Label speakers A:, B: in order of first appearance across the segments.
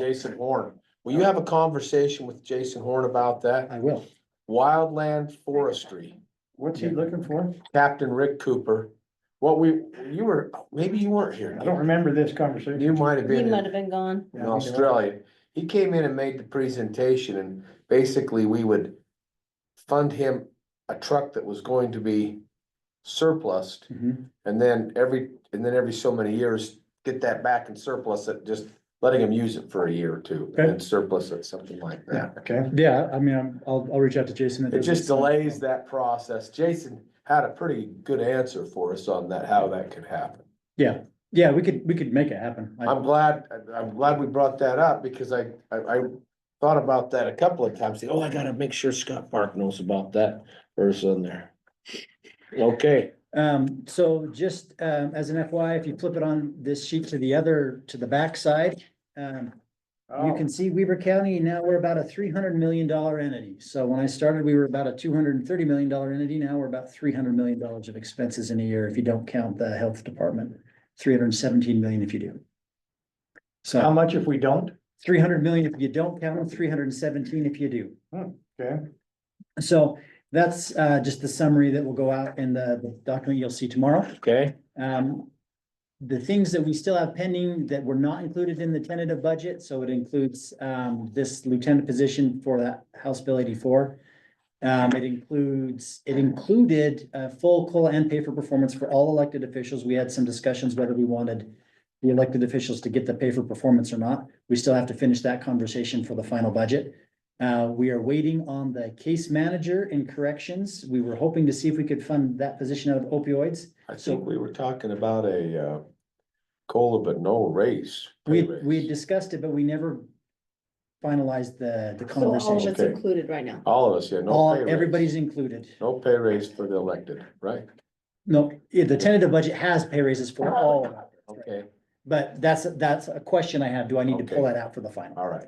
A: Jason Horn. Will you have a conversation with Jason Horn about that?
B: I will.
A: Wildland Forestry,
B: What's he
C: Yeah.
B: looking for?
A: Captain Rick Cooper. What we, you were, maybe you weren't here.
B: I don't remember this conversation.
A: You might have
D: He
A: been
D: might have
A: in-
D: been gone.
A: in Australia. He came in and made the presentation and basically we would fund him a truck that was going to be surplus
B: Mhm.
A: and then every, and then every so many years, get that back and surplus it, just letting him use it for a year or two and then surplus it, something like that.
B: Yeah, okay. Yeah, I mean, I'm- I'll, I'll reach out to Jason.
A: It just delays that process. Jason had a pretty good answer for us on that, how that could happen.
B: Yeah, we could, we could make it happen. I-
A: I'm glad, I'm glad we brought that up because I, I, I thought about that a couple of times. Oh, I gotta make sure Scott Park knows about that person there. Okay,
B: Um, so just, um, as an FYI, if you flip it on this sheet to the other, to the backside, um,
C: Oh.
B: you can see Weaver County, now we're about a three hundred million dollar entity. So when I started, we were about a two hundred and thirty million dollar entity. Now we're about three hundred million dollars of expenses in a year, if you don't count the health department. Three hundred and seventeen million if you do.
C: How
B: So
C: much if we don't?
B: three hundred million if you don't count them, three hundred and seventeen if you do.
C: Hmm, Okay,
B: So that's, uh, just the summary that will go out in the the document you'll see tomorrow.
A: okay,
B: Um, the things that we still have pending that were not included in the tentative budget, so it includes, um, this lieutenant position for that House Bill eighty-four. Um, it includes, it included, uh, full COLA and pay for performance for all elected officials. We had some discussions whether we wanted the elected officials to get the pay for performance or not. We still have to finish that conversation for the final budget. Uh, we are waiting on the case manager in corrections. We were hoping to see if we could fund that position out of opioids.
A: I think we were talking about a, uh, cola but no raise.
B: We,
A: pay raise.
B: we had discussed it, but we never finalized the, the
D: So all of
B: conversation.
D: it's
A: Okay.
D: included right now.
A: All of us, yeah, no
B: All,
A: pay raise.
B: everybody's included.
A: No pay raise for the elected, right?
B: No, yeah, the tentative budget has pay raises
D: Oh.
B: for all, of it,
A: Okay,
B: but that's, that's a question I have. Do I need to pull
A: Okay.
B: that out for the final?
A: all right,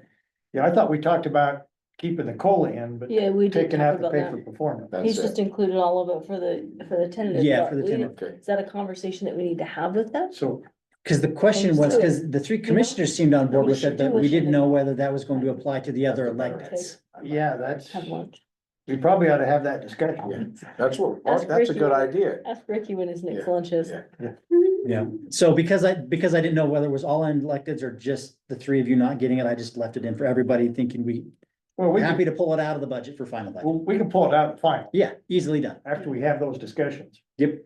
C: yeah, I thought we talked about keeping the cola in, but
D: Yeah, we did
C: taking
D: talk
C: out the
D: about
C: pay for
D: that.
C: performance.
A: that's
D: He's just
A: it.
D: included all of it for the, for the tentative.
B: Yeah,
D: but
B: for the
D: we-
B: tentative.
A: Okay,
D: Is that a conversation that we need to have with them?
C: So,
B: Cause the question was,
D: Understood.
B: cause the three commissioners seemed on board with it, but we didn't know whether that was going to apply to the
A: That's
B: other
A: a better-
B: electeds.
C: yeah, that's,
D: Have lunch.
C: we probably ought to have that discussion.
A: that's what,
D: Ask
A: that's a
D: Ricky.
A: good idea.
D: Ask Ricky when his
A: Yeah,
D: next lunch is.
A: yeah.
B: Yeah, so because I, because I didn't know whether it was all electeds or just the three of you not getting it, I just left it in for everybody thinking we,
C: Well, we, can-
B: happy to pull it out of the budget for final budget.
C: well, we can pull it out at the final,
B: Yeah, easily done.
C: after we have those discussions.
B: Yep.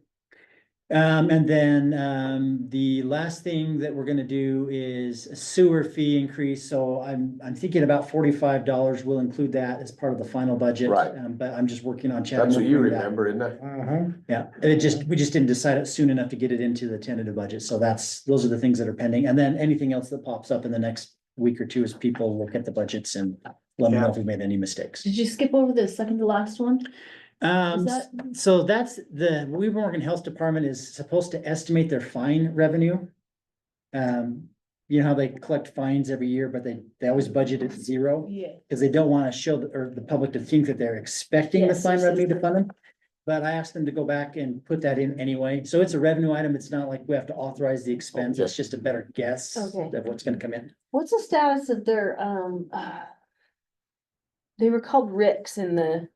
B: Um, and then, um, the last thing that we're gonna do is sewer fee increase, so I'm, I'm thinking about forty-five dollars, we'll include that as part of the final budget.
A: Right.
B: Um, but I'm just working on. chatting
A: That's what
B: with
A: you
B: Brenda.
A: remember, isn't it?
C: Mhm.
B: Yeah, and it just, we just didn't decide it soon enough to get it into the tentative budget, so that's, those are the things that are pending, and then anything else that pops up in the next week or two as people look at the budgets and let me know if we made any mistakes.
D: Did you skip over the second to last one? Is
B: Um,
D: that,
B: So that's the, Weaver Morgan Health Department is supposed to estimate their fine revenue. Um, you know how they collect fines every year, but they, they always budget at zero,
D: yeah,
B: because they don't want to show, the- or the public to think that they're expecting the
D: Yes,
B: fine
D: yes,
B: revenue to
D: yes.
B: fund them. But I asked them to go back and put that in anyway, so it's a revenue item, it's not like we have to authorize the expense, it's just a better guess of
D: Okay.
B: what's gonna come in.
D: what's the status of their, um, uh, they were called Ricks in the,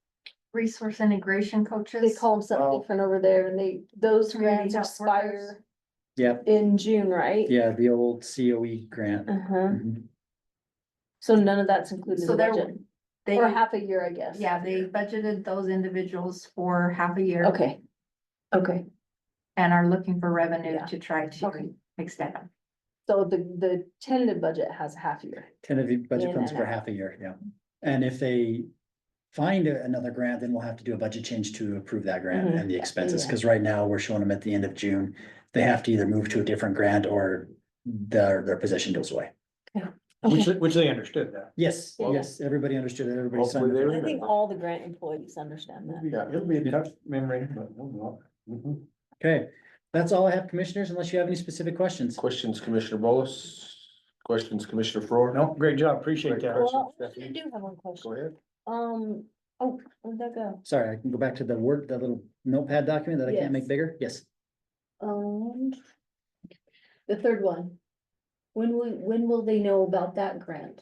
E: resource integration coaches.
D: they call them something
C: Oh.
D: different over there and they, those
E: Community
D: grants
E: health workers.
D: expire
B: Yeah,
D: in June, right?
B: yeah, the old COE grant.
D: Uh-huh.
B: Mhm.
D: So none of that's included in
E: So
D: the
E: they're-
D: budget,
E: They,
D: or half a year, I guess.
E: yeah, they budgeted those individuals for half a year.
D: Okay. Okay,
E: And are looking for revenue
D: Yeah.
E: to try
D: Okay.
E: to extend them.
D: so the, the tentative budget has a half year.
B: tentative budget
D: In
B: funds
D: and
B: for
D: out.
B: half a year, yeah. And if they find a- another grant, then we'll have to do a budget change to approve that grant
D: Mhm.
B: and the expenses,
D: Yeah.
B: because right now we're showing them at the end of June. They have to either move to a different grant or their, their position goes away.
C: Which, which they understood that.
B: Yes,
D: Yeah.
B: yes, everybody understood it, everybody
A: Hopefully
B: signed
A: they
B: it.
D: I think
A: remember.
D: all the grant employees understand that.
C: Yeah, it'll be a tough memory, but we'll go. Mhm.
B: Okay, that's all I have, commissioners, unless you have any specific questions.
A: Questions, Commissioner Bolus? Questions, Commissioner Faur?
C: No, great job, appreciate that.
D: Well, actually, I do have one
A: Go
D: question.
A: ahead.
D: Um, oh, where'd that go?
B: Sorry, I can go back to the Word, that little notepad document that I can't make
D: Yes.
B: bigger, yes.
D: Um, the third one. When will, when will they know about that grant?